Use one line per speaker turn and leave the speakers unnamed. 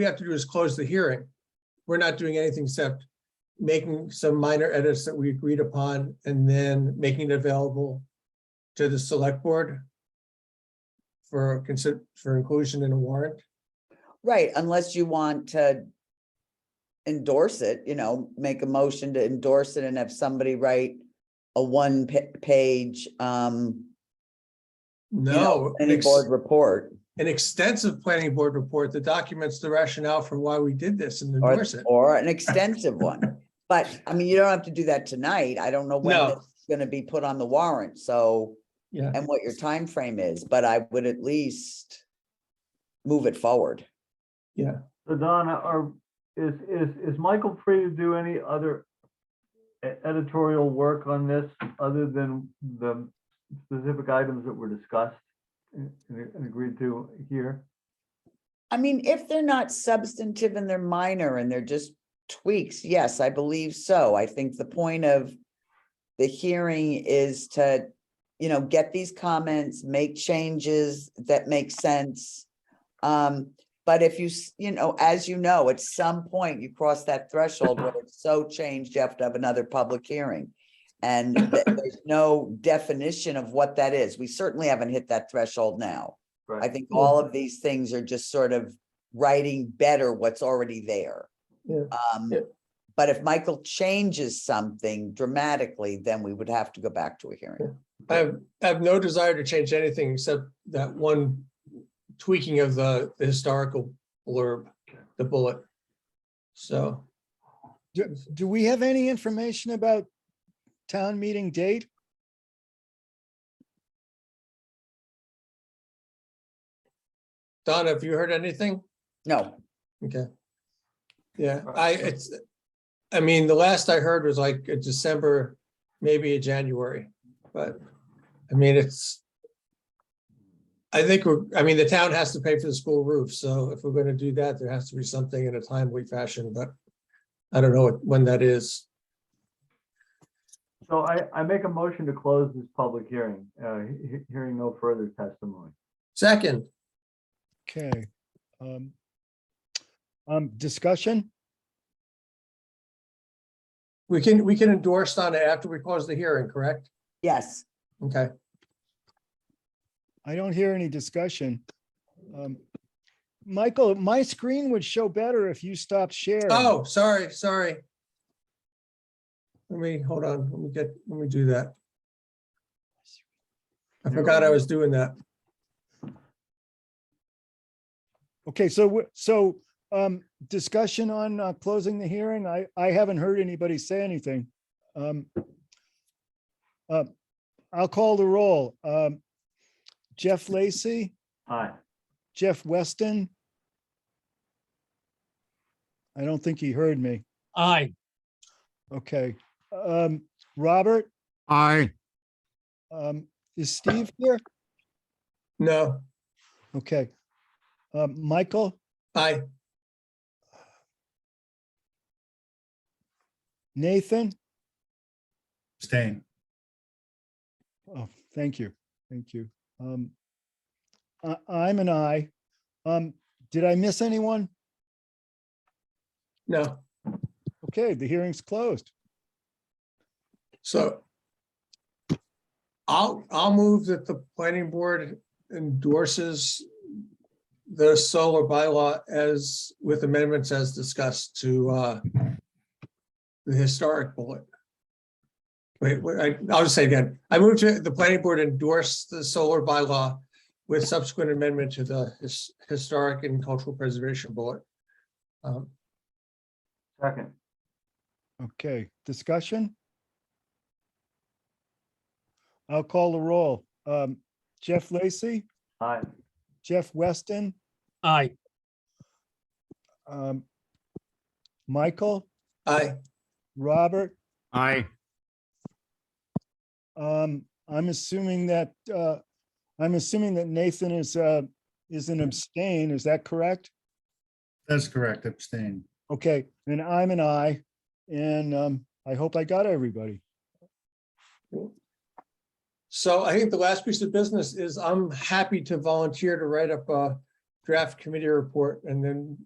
we have to do is close the hearing. We're not doing anything except making some minor edits that we agreed upon and then making it available to the select board for consider, for inclusion in a warrant.
Right, unless you want to endorse it, you know, make a motion to endorse it and have somebody write a one pa- page, um, you know,
No, an
any
ex-
board report
an extensive planning board report that documents the rationale for why we did this and
or,
endorse it.
or an extensive one. But I mean, you don't have to do that tonight. I don't know when
No.
it's gonna be put on the warrant, so,
Yeah,
and what your time frame is, but I would at least move it forward.
So Donna, are, is, is, is Michael free to do any other e- editorial work on this other than the specific items that were discussed and and agreed to here?
I mean, if they're not substantive and they're minor and they're just tweaks, yes, I believe so. I think the point of the hearing is to, you know, get these comments, make changes that make sense. Um, but if you, s- you know, as you know, at some point you cross that threshold where it's so changed, you have to have another public hearing. And th- there's no definition of what that is. We certainly haven't hit that threshold now. I
Right,
think
Yeah.
all of these things are just sort of writing better what's already there.
Yeah.
Um,
Yeah.
but if Michael changes something dramatically, then we would have to go back to a hearing.
I have, I have no desire to change anything except that one tweaking of the the historical blurb, the bullet. So.
Do, do we have any information about town meeting date?
Donna, have you heard anything?
No,
Okay. Yeah, I, it's, I mean, the last I heard was like a December, maybe a January, but, I mean, it's. I think we're, I mean, the town has to pay for the school roof, so if we're gonna do that, there has to be something in a timely fashion, but I don't know what- when that is.
so I, I make a motion to close this public hearing, uh, he- he- hearing no further testimony.
Second,
Okay. Um, um, discussion?
we can, we can endorse on it after we close the hearing, correct?
yes,
Okay,
I don't hear any discussion. Um, Michael, my screen would show better if you stopped sharing.
oh, sorry, sorry. Let me, hold on, let me get, let me do that. I forgot I was doing that.
Okay, so, w- so, um, discussion on, uh, closing the hearing. I, I haven't heard anybody say anything. Um, uh, I'll call the roll. Um, Jeff Lacy?
Aye.
Jeff Weston? I don't think he heard me.
Aye,
Okay. Um, Robert,
Aye,
um, is Steve here?
No,
Okay. Um, Michael,
I,
Nathan?
Abstain.
Oh, thank you. Thank you. Um, I, I'm an I. Um, did I miss anyone?
no,
Okay, the hearing's closed.
so. I'll, I'll move that the planning board endorses the solar bylaw as, with amendments as discussed to, uh, the historic bullet. Wait, wait, I, I'll just say again, I move to, the planning board endorse the solar bylaw with subsequent amendment to the his, historic and cultural preservation bullet. Um,
Second,
Okay, discussion? I'll call the roll. Um, Jeff Lacy,
aye.
Jeff Weston,
aye,
um, Michael,
I,
Robert,
aye,
um, I'm assuming that, uh, I'm assuming that Nathan is, uh, is an abstain, is that correct?
That's correct, abstain.
Okay, and I'm an I, and, um, I hope I got everybody.
So I think the last piece of business is I'm happy to volunteer to write up a draft committee report and then